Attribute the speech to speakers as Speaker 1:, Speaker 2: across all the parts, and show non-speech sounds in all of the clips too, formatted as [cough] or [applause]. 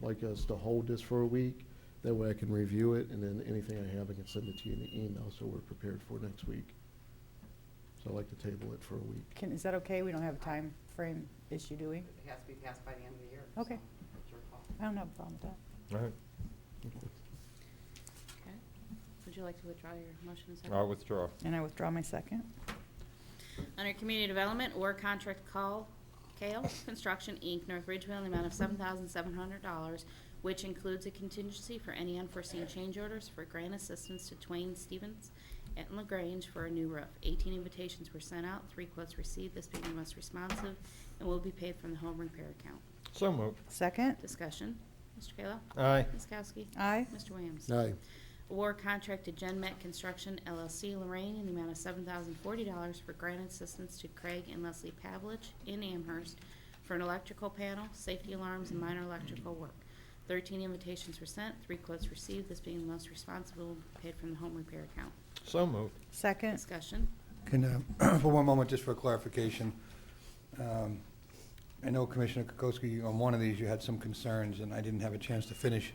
Speaker 1: like us to hold this for a week. That way I can review it, and then anything I have, I can send it to you in the email, so we're prepared for next week. So I'd like to table it for a week.
Speaker 2: Can, is that okay? We don't have a time frame issue, do we?
Speaker 3: It has to be passed by the end of the year.
Speaker 2: Okay.
Speaker 3: so It's your call.
Speaker 2: I don't have a problem with that.
Speaker 4: All right,
Speaker 5: Okay. Would you like to withdraw your motion and second?
Speaker 4: I'll withdraw.
Speaker 2: And I withdraw my second.
Speaker 5: Under Community Development, or contract call, Kale Construction, Inc., North Ridgeville, in the amount of $7,700, which includes a contingency for any unforeseen change orders for grant assistance to Twain Stevens at LaGrange for a new roof. 18 invitations were sent out, three quotes received, this being the most responsive, and will be paid from the home repair account.
Speaker 4: So moved.
Speaker 2: Second?
Speaker 5: Discussion. Mr. Kayla?
Speaker 4: Aye.
Speaker 5: Ms. Kowski?
Speaker 2: Aye.
Speaker 5: Mr. Williams?
Speaker 1: Aye,
Speaker 5: Award contract to GenMet Construction LLC Lorraine in the amount of $7,040 for grant assistance to Craig and Leslie Pavlich in Amherst for an electrical panel, safety alarms, and minor electrical work. 13 invitations were sent, three quotes received, this being the most responsible paid from the home repair account.
Speaker 4: So moved.
Speaker 2: Second?
Speaker 5: Discussion.
Speaker 6: Can, uh, [clears throat] for one moment, just for clarification, um, I know Commissioner Kokoski, on one of these, you had some concerns, and I didn't have a chance to finish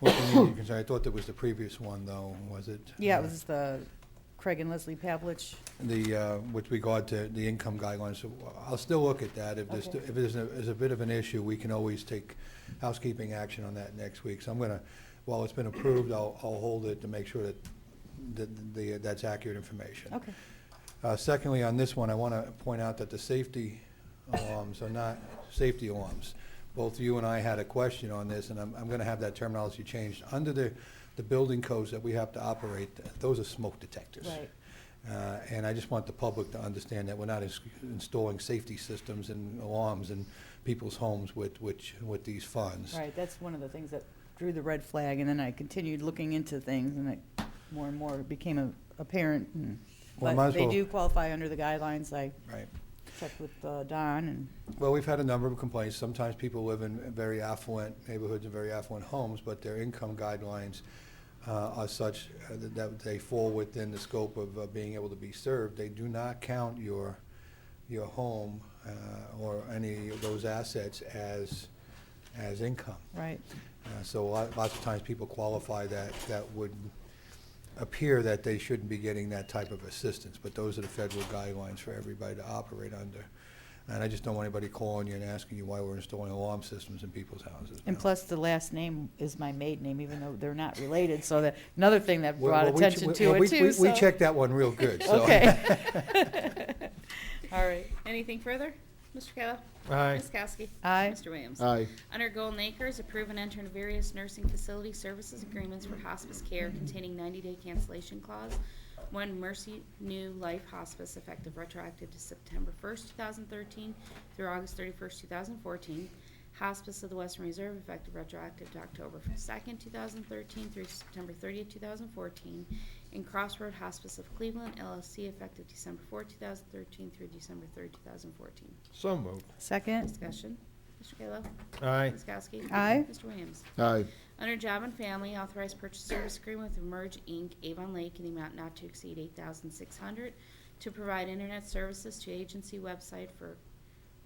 Speaker 6: looking at your concern. I thought that was the previous one, though, was it?
Speaker 2: Yeah, it was the Craig and Leslie Pavlich.
Speaker 6: The, uh, with regard to the income guidelines, so I'll still look at that. If there's,
Speaker 2: Okay.
Speaker 6: if there's a is a bit of an issue, we can always take housekeeping action on that next week. So I'm gonna, while it's been approved, I'll, I'll hold it to make sure that, that, the- that's accurate information.
Speaker 2: Okay.
Speaker 6: Uh, Secondly, on this one, I want to point out that the safety alarms are not safety alarms. Both you and I had a question on this, and I'm, I'm going to have that terminology changed. Under the, the building codes that we have to operate, those are smoke detectors.
Speaker 2: Right.
Speaker 6: Uh, And I just want the public to understand that we're not ins- installing safety systems and alarms in people's homes with, which, with these funds.
Speaker 2: Right, that's one of the things that drew the red flag, and then I continued looking into things, and it more and more became a- apparent. and-
Speaker 6: Well, might
Speaker 2: But
Speaker 6: as
Speaker 2: they
Speaker 6: well-
Speaker 2: do qualify under the guidelines. I
Speaker 6: Right.
Speaker 2: checked with uh, Don, and
Speaker 6: Well, we've had a number of complaints. Sometimes people live in very affluent neighborhoods and very affluent homes, but their income guidelines uh, are such uh, that- that they fall within the scope of uh, being able to be served. They do not count your, your home uh, or any of those assets as, as income.
Speaker 2: Right,
Speaker 6: Uh, So lot- lots of times people qualify that, that would appear that they shouldn't be getting that type of assistance, but those are the federal guidelines for everybody to operate under. And I just don't want anybody calling you and asking you why we're installing alarm systems in people's houses.
Speaker 2: and
Speaker 6: now.
Speaker 2: plus the last name is my maiden name, even though they're not related, so that, another thing that
Speaker 6: Well,
Speaker 2: brought
Speaker 6: well, we ch-
Speaker 2: attention
Speaker 6: we-
Speaker 2: to
Speaker 6: well,
Speaker 2: it
Speaker 6: we-
Speaker 2: too,
Speaker 6: we-
Speaker 2: so.
Speaker 6: We checked that one real
Speaker 2: [laughs]
Speaker 6: good, so.
Speaker 2: Okay. All right,
Speaker 5: Anything further? Mr. Kayla?
Speaker 4: Aye.
Speaker 5: Ms. Kowski?
Speaker 2: aye,
Speaker 5: Mr. Williams?
Speaker 1: aye,
Speaker 5: Under Golden Acres, approve and enter into various nursing facility services agreements for hospice care containing 90-day cancellation clause. One Mercy New Life Hospice effective retroactive to September 1st, 2013 through August 31st, 2014. Hospice of the Western Reserve effective retroactive to October 2nd, 2013 through September 30th, 2014. And Crossroad Hospice of Cleveland LLC effective December 4th, 2013 through December 3rd, 2014.
Speaker 4: So moved.
Speaker 2: second,
Speaker 5: Discussion. Mr. Kayla?
Speaker 4: Aye.
Speaker 5: Ms. Kowski?
Speaker 2: Aye.
Speaker 5: Mr. Williams?
Speaker 1: aye,
Speaker 5: Under Job and Family, authorized purchase service agreement with Emerge Inc., Avon Lake, in the amount not to exceed eight thousand six hundred to provide internet services to agency website for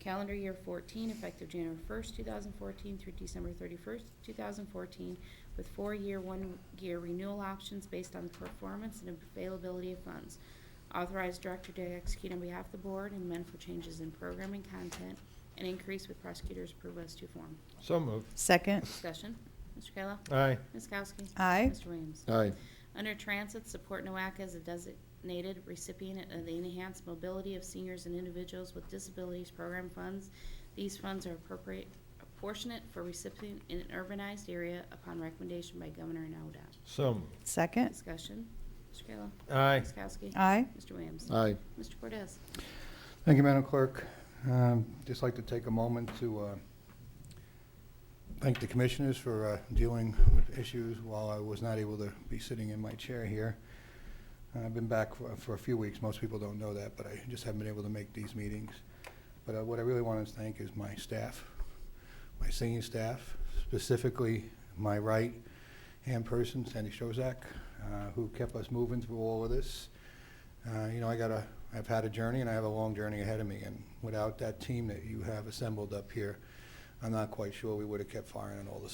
Speaker 5: calendar year fourteen, effective January first, two thousand fourteen through December thirty-first, two thousand fourteen, with four-year, one-year renewal options based on performance and availability of funds. Authorized director to execute on behalf of the board and amend for changes in programming content and increase with prosecutor's approval as to form.
Speaker 4: So moved.
Speaker 2: second,
Speaker 5: Discussion, Mr. Kayla?
Speaker 4: Aye.
Speaker 5: Ms. Kowski?
Speaker 2: Aye.
Speaker 5: Mr. Williams?
Speaker 1: aye,
Speaker 5: Under Transit, support NOAC as a designated recipient of the Enhanced Mobility of Seniors and Individuals with Disabilities Program funds. These funds are appropriate, proportionate for recipient in an urbanized area upon recommendation by Governor and ODOT.
Speaker 4: So moved.
Speaker 2: second,
Speaker 5: Discussion, Mr. Kayla?
Speaker 4: Aye.
Speaker 5: Ms. Kowski?
Speaker 2: aye,
Speaker 5: Mr. Williams?
Speaker 1: aye,
Speaker 5: Mr. Cortez?
Speaker 6: Thank you, Madam Clerk. Um, Just like to take a moment to uh, thank the commissioners for uh, dealing with issues while I was not able to be sitting in my chair here. I've been back for- for a few weeks. Most people don't know that, but I just haven't been able to make these meetings. But uh, what I really want to thank is my staff, my singing staff, specifically my right-hand person, Sandy Shozak, uh, who kept us moving through all of this. Uh, you know, I got a, I've had a journey and I have a long journey ahead of me. And without that team that you have assembled up here, I'm not quite sure we would have kept firing on all the